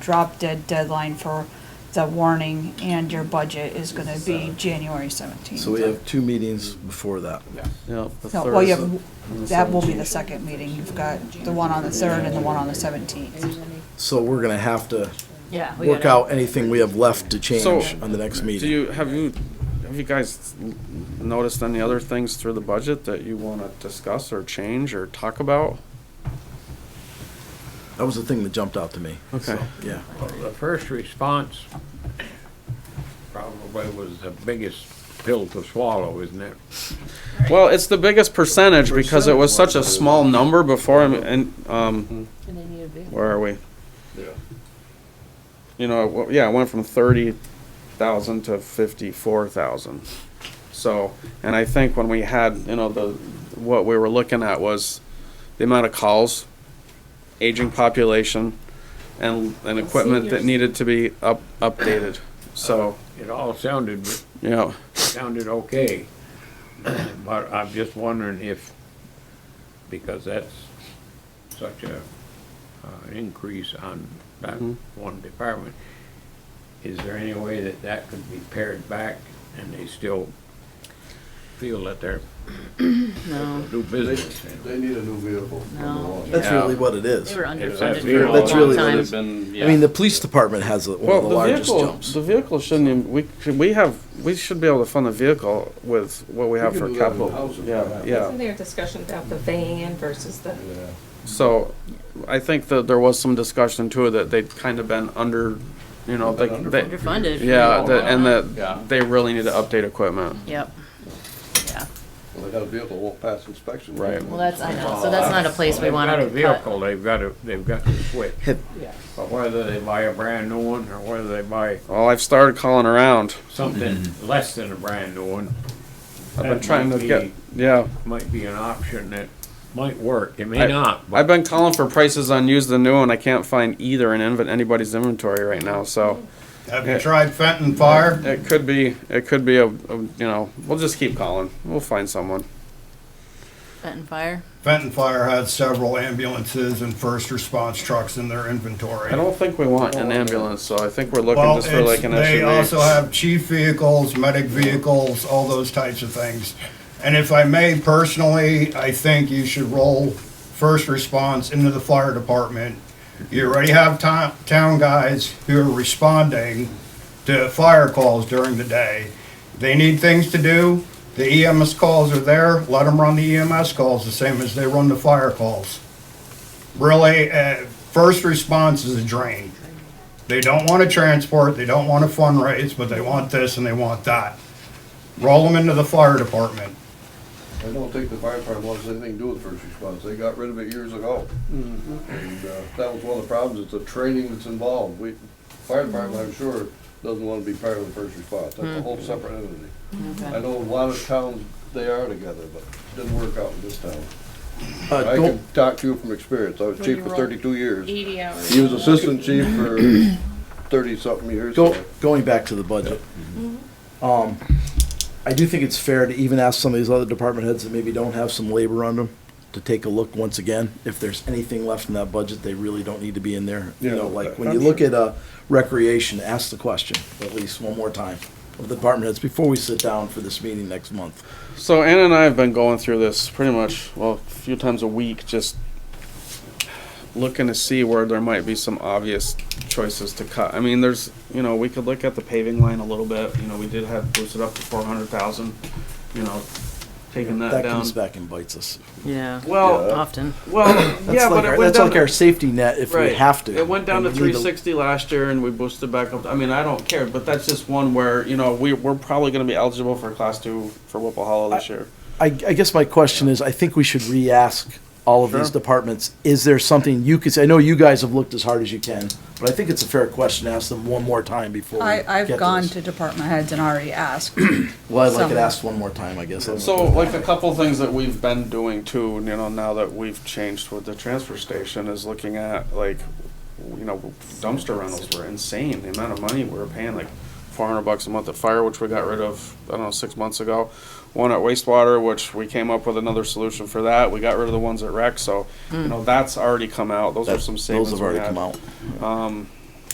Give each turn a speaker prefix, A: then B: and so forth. A: drop dead deadline for the warning and your budget is gonna be January seventeenth.
B: So we have two meetings before that.
C: No, the
A: No, well, you
C: third.
A: have, that will be the second meeting. You've got the one on the third and the one on the seventeenth.
B: So we're gonna have to
D: Yeah. we
B: work
D: gotta-
B: out anything we have left to
C: So-
B: change on the next
C: Do
B: meeting.
C: you, have you, have you guys l- noticed any other things through the budget that you wanna discuss or change or talk about?
B: That was the thing that jumped out to me.
C: Okay.
B: Yeah.
E: The first response probably was the biggest pill to swallow, isn't it?
C: Well, it's the biggest percentage because it was such a small number before, I'm- and, um,
D: And they need a vehicle.
C: where are we? You know, it wa- yeah, it went from thirty thousand to fifty-four thousand. So, and I think when we had, you know, the, what we were looking at was the amount of calls, aging population, and, and equipment that
D: Seniors.
C: needed to be up, updated, so,
E: It all sounded,
C: yeah.
E: sounded okay, but I'm just wondering if, because that's such a, uh, an increase on that
C: Mhm.
E: one department, is there any way that that could be pared back and they still feel that they're
D: No,
E: do
F: They,
E: business?
F: they need a new vehicle.
D: No.
B: That's
C: Yeah.
B: really what it is.
D: they were
B: I
D: underfunded
E: that's
D: for a
E: really- that's
D: long
B: really
D: time.
B: what mean, the police department has one
C: Well,
B: of the
C: the
B: largest
C: vehicle,
B: jumps.
C: the vehicle shouldn't even, we, should- we have, we should be able to fund the vehicle with what we have
F: can
C: for
F: do that in
C: capital.
F: housing.
C: Yeah, yeah,
G: Isn't there a discussion about the van versus the,
F: Yeah.
C: so I think that there was some discussion too that they'd kind of been under, you know, they, they,
D: Underfunded. for a
C: yeah,
D: long
C: that- and
D: time.
F: Yeah.
C: that they really need to update equipment.
D: Yep. Yeah.
F: Well, they got a vehicle, won't pass inspection.
C: Right.
D: Well, that's, I know, so that's not a place we
E: They've
D: want
E: got a
D: to get cut.
E: vehicle, they've got to, they've got to switch.
B: Have-
E: But whether they buy a brand new one or whether they buy
C: Well, I've started calling around.
E: something less than a brand new one.
C: Mm-hmm. I've
E: that
C: been trying to
E: might
C: get,
E: be-
C: yeah.
E: Might be an option that might work, it
C: I-
E: may not,
C: I've
E: but
C: been calling for prices on used and new and I can't find either in inven- anybody's inventory right now, so.
H: Have you tried Fenton Fire?
C: It could be, it could be a, a, you know, we'll just keep calling. We'll find someone.
D: Fenton Fire.
H: Fenton Fire had several ambulances and first response trucks in their inventory.
C: I don't think we want an ambulance, so I think we're looking
H: Well,
C: just for
H: it's-
C: like an
H: They also
C: SUV.
H: have chief vehicles, medic vehicles, all those types of things. And if I may personally, I think you should roll first response into the fire department. You already have town, town guys who are responding to fire calls during the day. They need things to do. The EMS calls are there. Let them run the EMS calls the same as they run the fire calls. Really, uh, first response is a drain. They don't want to transport, they don't want to fundraise, but they want this and they want that. Roll them into the fire department.
F: I don't think the fire department wants anything to do with first response. They got rid of it years ago.
G: Mm-hmm.
F: And, uh, that was one of the problems, it's the training that's involved. We, fire department, I'm sure, doesn't want to be part of the first response. That's a whole
G: Mm-hmm.
F: separate entity. I know a lot of towns, they are together, but didn't work out in this town.
B: Uh,
F: I
B: don't-
F: can talk to you from experience. I was
G: When
F: chief
G: you
F: for
G: roll
F: thirty-two years.
G: eighty hours?
F: He was assistant chief for thirty-something years.
B: Go, going back to the budget. Um, I do think it's fair to even ask some of these other department heads that maybe don't have some labor on them to take a look once again. If there's anything left in that budget, they really don't need to be in there. You
F: Yeah.
B: know, like when you look at, uh, recreation, ask the question at least one more time of the department heads before we sit down for this meeting next month.
C: So Ann and I have been going through this pretty much, well, a few times a week, just looking to see where there might be some obvious choices to cut. I mean, there's, you know, we could look at the paving line a little bit, you know, we did have boosted up to four hundred thousand, you know, taking that
B: That
C: down.
B: comes back and bites us.
D: Yeah,
C: Well,
D: often.
C: well,
B: That's
C: yeah,
B: like
C: but
B: our,
C: it went
B: that's
C: down.
B: like our safety net if we
C: Right.
B: have to.
C: It went down
B: And
C: to
B: we need
C: three sixty last year and we boosted back up. I mean, I don't care, but that's just one where, you know, we, we're probably gonna be eligible for class two for Whipple Hollow this year.
B: I, I guess my question is, I think we should re-ask all of these
C: Sure.
B: departments, is there something you could say, I know you guys have looked as hard as you can, but I think it's a fair question, to ask them one more time before we
A: I,
B: get to
A: I've gone
B: this.
A: to department heads and already asked.
B: Well, I'd like it
A: some.
B: asked one more time, I guess.
C: So like a couple things that we've been doing too, you know, now that we've changed with the transfer station is looking at like, you know, dumpster rentals were insane. The amount of money we were paying, like four hundred bucks a month at fire, which we got rid of, I don't know, six months ago. One at wastewater, which we came up with another solution for that. We got rid of the ones at rec, so, you know, that's already come out. Those are
B: Hmm. That-
C: some
B: Those
C: savings
B: have
C: we
B: already come
C: had.
B: out.
C: Um,